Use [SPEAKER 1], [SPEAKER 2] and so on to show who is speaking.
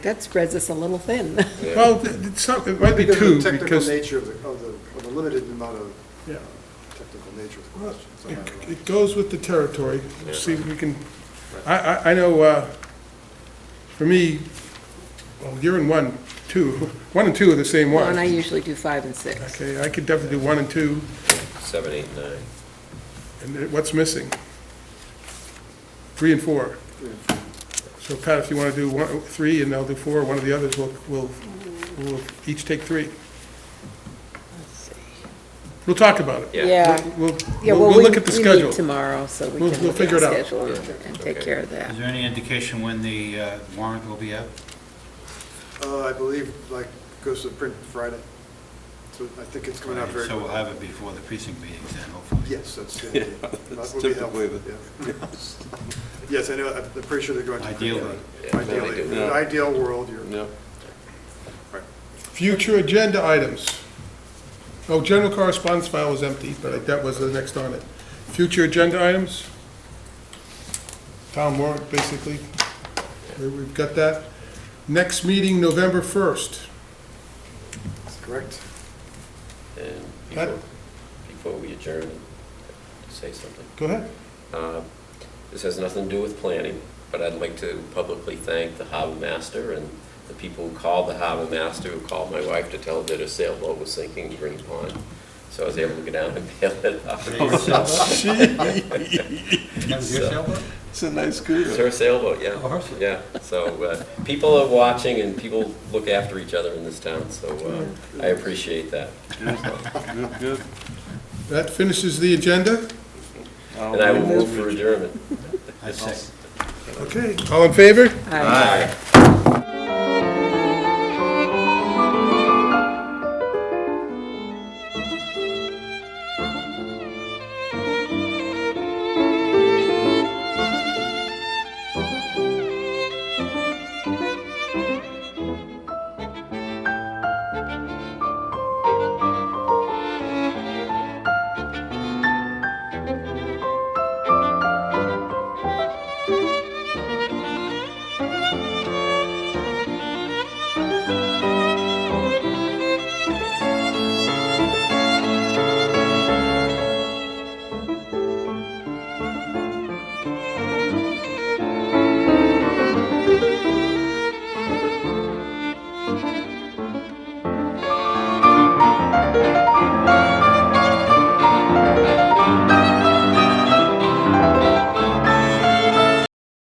[SPEAKER 1] That spreads us a little thin.
[SPEAKER 2] Well, th- th- some- it might be
[SPEAKER 3] Because
[SPEAKER 2] two,
[SPEAKER 3] of the technical
[SPEAKER 2] because it
[SPEAKER 3] nature of the, of the, of the limited amount of
[SPEAKER 2] Yeah.
[SPEAKER 3] uh, technical nature of the questions. I might
[SPEAKER 2] it goes with the territory. See, if we can, I, I, I know, uh, for me, well, you're in one, two, one and two are the same
[SPEAKER 1] Well, And I
[SPEAKER 2] one.
[SPEAKER 1] usually do five and six.
[SPEAKER 2] Okay, I could definitely do one and two,
[SPEAKER 4] Seven, eight, nine.
[SPEAKER 2] and then what's missing? Three and four. So Pat, if you want to do one, three, and I'll do four, one of the others, we'll, we'll, we'll each take three. We'll talk about it.
[SPEAKER 4] Yeah.
[SPEAKER 1] Yeah.
[SPEAKER 2] We'll,
[SPEAKER 1] Yeah,
[SPEAKER 2] we'll,
[SPEAKER 1] well,
[SPEAKER 2] we'll
[SPEAKER 1] we,
[SPEAKER 2] look at the
[SPEAKER 1] we meet
[SPEAKER 2] schedule.
[SPEAKER 1] tomorrow, so we
[SPEAKER 2] We'll-
[SPEAKER 1] can
[SPEAKER 2] we'll
[SPEAKER 1] look at
[SPEAKER 2] figure
[SPEAKER 1] the
[SPEAKER 2] it out.
[SPEAKER 1] schedule and and take
[SPEAKER 4] Okay.
[SPEAKER 1] care of that.
[SPEAKER 5] Is there any indication when the uh, warrant will be up?
[SPEAKER 3] add. Uh, I believe, like, goes to print Friday, so I think it's coming out very
[SPEAKER 5] So we'll
[SPEAKER 3] quickly.
[SPEAKER 5] have it before the precinct meetings then, hopefully.
[SPEAKER 3] Yes, that's, the idea. that would be helpful, yeah. Yes, I know, I'm I'm pretty sure they're going to. print
[SPEAKER 5] Ideally.
[SPEAKER 3] that.
[SPEAKER 4] Yeah,
[SPEAKER 3] Ideally,
[SPEAKER 4] ideally.
[SPEAKER 3] In an ideal world, you're,
[SPEAKER 4] No.
[SPEAKER 2] Future agenda items. Oh, general correspondence file was empty, but that was the next on it. Future agenda items. Town warrant, basically. We- We've got that. Next meeting, November 1st.
[SPEAKER 3] that's correct.
[SPEAKER 4] And
[SPEAKER 2] Pat?
[SPEAKER 4] before, before we adjourn, say something.
[SPEAKER 2] Go ahead.
[SPEAKER 4] Uh, This has nothing to do with planning, but I'd like to publicly thank the harbor master and the people who called the harbor master, who called my wife to tell her that her sailboat was sinking in Green Pond. So I was able to go down and bail it out.
[SPEAKER 6] It's a nice cruiser.
[SPEAKER 4] It's Oh, her sailboat, yeah. Yeah, so uh, people are watching and people look after each other in this town, so uh, I appreciate that.
[SPEAKER 6] Good, good.
[SPEAKER 2] That finishes the agenda.
[SPEAKER 4] And I will move for adjournment.
[SPEAKER 5] I second.
[SPEAKER 2] Okay, all in favor?
[SPEAKER 1] Aye.